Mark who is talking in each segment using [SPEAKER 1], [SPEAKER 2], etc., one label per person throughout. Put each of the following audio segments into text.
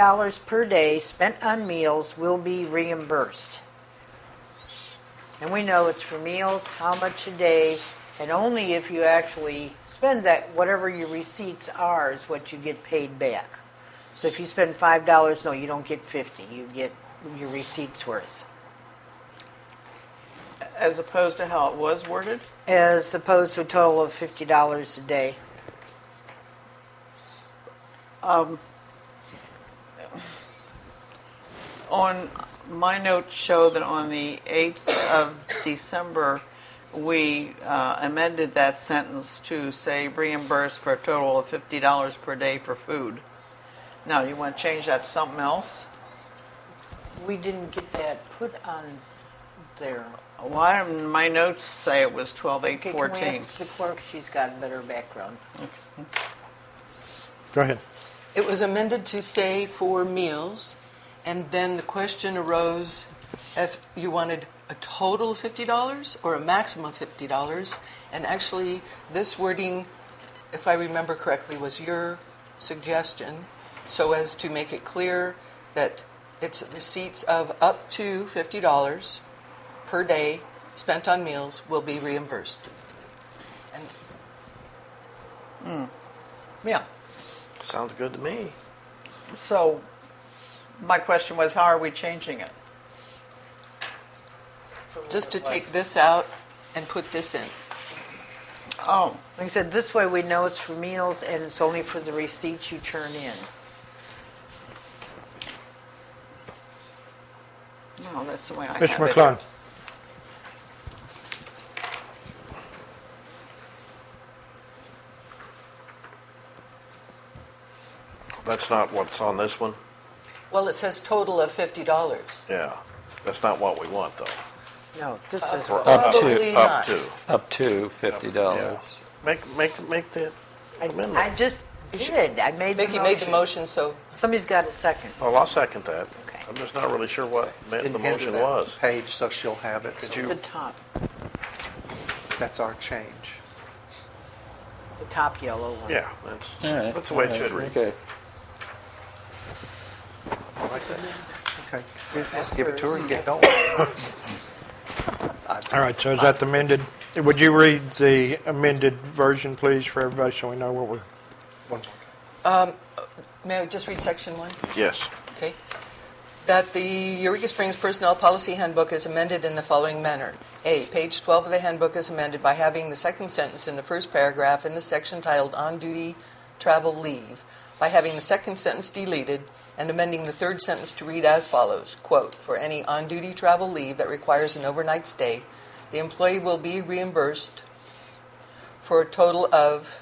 [SPEAKER 1] dollars per day spent on meals will be reimbursed. And we know it's for meals, how much a day, and only if you actually spend that, whatever your receipts are is what you get paid back. So if you spend five dollars, no, you don't get fifty, you get your receipts worth.
[SPEAKER 2] as opposed to how it was worded.
[SPEAKER 1] As opposed to a total of fifty dollars a day.
[SPEAKER 2] On my notes show that on the 8th of December, we uh, amended that sentence to say reimbursed for a total of $50 per day for food. Now, you want to change that to something else?
[SPEAKER 1] We didn't get that put on there.
[SPEAKER 2] Why do my notes say it was twelve eight
[SPEAKER 1] Okay, can we
[SPEAKER 2] fourteen?
[SPEAKER 1] ask the clerk? She's got a better background.
[SPEAKER 3] Go ahead.
[SPEAKER 4] It was amended to say for meals, and then the question arose if you wanted a total of $50 or a maximum of $50. And actually, this wording, if I remember correctly, was your suggestion so as to make it clear that it's receipts of up to $50 per day spent on meals will be reimbursed. And
[SPEAKER 2] Yeah,
[SPEAKER 3] Sounds good to me.
[SPEAKER 2] so my question was, how are we changing it?
[SPEAKER 4] just to take this out and put this in.
[SPEAKER 2] Oh,
[SPEAKER 1] Like I said, this way we know it's for meals and it's only for the receipts you turn in.
[SPEAKER 2] no, that's the way I have it.
[SPEAKER 3] Mr. McClung.
[SPEAKER 5] That's not what's on this one?
[SPEAKER 4] Well, it says total of fifty dollars.
[SPEAKER 5] Yeah. That's not what we want, though.
[SPEAKER 1] No, this is,
[SPEAKER 5] We're
[SPEAKER 4] Up to. Probably
[SPEAKER 5] Up
[SPEAKER 4] not.
[SPEAKER 5] to.
[SPEAKER 6] Up to fifty
[SPEAKER 5] Yeah.
[SPEAKER 6] dollars.
[SPEAKER 5] Make, make, make that
[SPEAKER 1] I
[SPEAKER 5] amendment.
[SPEAKER 1] just did, I made the
[SPEAKER 4] Mickey made the
[SPEAKER 1] motion.
[SPEAKER 4] motion, so
[SPEAKER 1] Somebody's got a second.
[SPEAKER 5] Well, I'll second that.
[SPEAKER 1] Okay.
[SPEAKER 5] I'm just not really sure what ma-
[SPEAKER 7] And
[SPEAKER 5] the
[SPEAKER 7] hand her
[SPEAKER 5] motion
[SPEAKER 7] that
[SPEAKER 5] was.
[SPEAKER 7] Page, so she'll have it.
[SPEAKER 5] Did
[SPEAKER 7] So
[SPEAKER 1] The
[SPEAKER 5] you,
[SPEAKER 1] top,
[SPEAKER 7] That's our change.
[SPEAKER 1] the top yellow one.
[SPEAKER 5] yeah, that's,
[SPEAKER 6] All right.
[SPEAKER 5] that's the way it
[SPEAKER 6] all
[SPEAKER 5] should read.
[SPEAKER 6] right, Okay.
[SPEAKER 7] Okay, let's give it to her and get going.
[SPEAKER 3] All right, so is that the amended? Would you read the amended version, please, for everybody, so we know what we're...
[SPEAKER 7] One more.
[SPEAKER 4] may I just read section one?
[SPEAKER 5] Yes.
[SPEAKER 4] Okay. That the Eureka Springs Personnel Policy Handbook is amended in the following manner. A, page 12 of the handbook is amended by having the second sentence in the first paragraph in the section titled On Duty Travel Leave, by having the second sentence deleted and amending the third sentence to read as follows, quote, "For any on-duty travel leave that requires an overnight stay, the employee will be reimbursed for a total of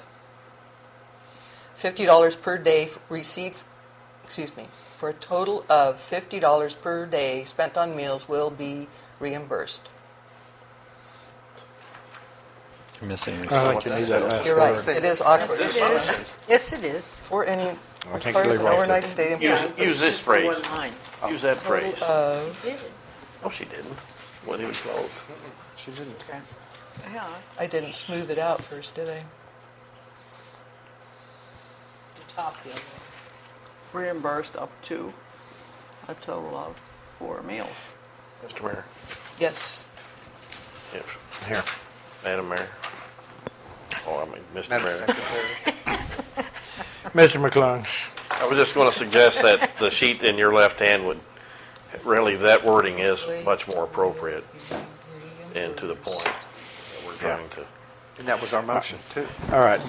[SPEAKER 4] $50 per day receipts excuse me, for a total of fifty dollars per day spent on meals will be reimbursed.
[SPEAKER 6] You're missing your
[SPEAKER 3] I
[SPEAKER 6] stuff.
[SPEAKER 3] like to need that last
[SPEAKER 4] You're right.
[SPEAKER 3] word.
[SPEAKER 4] It is awkward.
[SPEAKER 1] Yes, it is.
[SPEAKER 4] For any
[SPEAKER 3] I
[SPEAKER 4] requires
[SPEAKER 3] think
[SPEAKER 4] an
[SPEAKER 3] Leroy said-
[SPEAKER 4] overnight stay
[SPEAKER 5] Use,
[SPEAKER 4] employee.
[SPEAKER 5] use this
[SPEAKER 1] Just the
[SPEAKER 5] phrase.
[SPEAKER 1] one line.
[SPEAKER 5] Use that phrase.
[SPEAKER 4] Of,
[SPEAKER 5] No, she didn't. When he was closed.
[SPEAKER 7] She didn't.
[SPEAKER 2] Yeah,
[SPEAKER 4] I didn't smooth it out first, did I?
[SPEAKER 1] The top yellow.
[SPEAKER 2] reimbursed up to a total of four meals.
[SPEAKER 5] Mr. Mayor.
[SPEAKER 4] Yes.
[SPEAKER 5] Yes.
[SPEAKER 3] Here.
[SPEAKER 5] Madam Mayor. Oh, I mean, Mr.
[SPEAKER 7] Madam
[SPEAKER 5] Mayor.
[SPEAKER 7] Secretary.
[SPEAKER 3] Mr. McClung,
[SPEAKER 5] I was just going to suggest that the sheet in your left hand would, really, that wording is much more appropriate and to the point that we're trying to.
[SPEAKER 7] And that was our motion, too.
[SPEAKER 3] all right.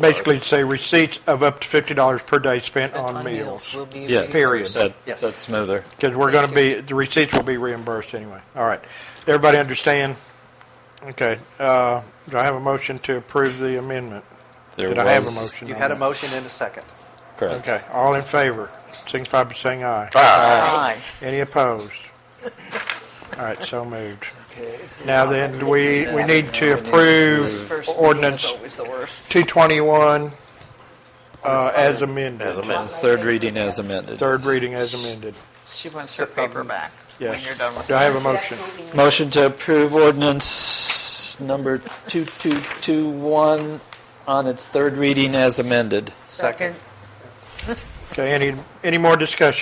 [SPEAKER 3] Basically, say receipts of up to $50 per day spent
[SPEAKER 4] Spent
[SPEAKER 3] on meals.
[SPEAKER 4] will be
[SPEAKER 6] Yes.
[SPEAKER 3] Period.
[SPEAKER 6] That,
[SPEAKER 7] Yes.
[SPEAKER 6] That's smoother.
[SPEAKER 3] Because we're going to be, the receipts will be reimbursed anyway. All right. Everybody understand? Okay. uh, Do I have a motion to approve the amendment?
[SPEAKER 6] There
[SPEAKER 3] Did I have a
[SPEAKER 6] was-
[SPEAKER 3] motion?
[SPEAKER 7] You
[SPEAKER 3] on
[SPEAKER 7] had a
[SPEAKER 3] that?
[SPEAKER 7] motion and a second.
[SPEAKER 6] Correct.
[SPEAKER 3] Okay. All in favor, signify by saying aye.
[SPEAKER 2] Aye.
[SPEAKER 3] Any opposed? All right, so moved. Now then, we, we need to approve
[SPEAKER 2] First
[SPEAKER 3] ordinance
[SPEAKER 2] meeting is always the worst.
[SPEAKER 3] 221 uh, as
[SPEAKER 5] As
[SPEAKER 3] amended,
[SPEAKER 5] amended.
[SPEAKER 6] It's third reading as amended.
[SPEAKER 3] third reading as amended.
[SPEAKER 2] She wants her paper back when
[SPEAKER 3] Yes.
[SPEAKER 2] you're done with
[SPEAKER 3] Do I have a motion?
[SPEAKER 6] Motion to approve ordinance number 2221 on its third reading as amended.
[SPEAKER 4] Second.
[SPEAKER 3] Okay, any, any more discussion?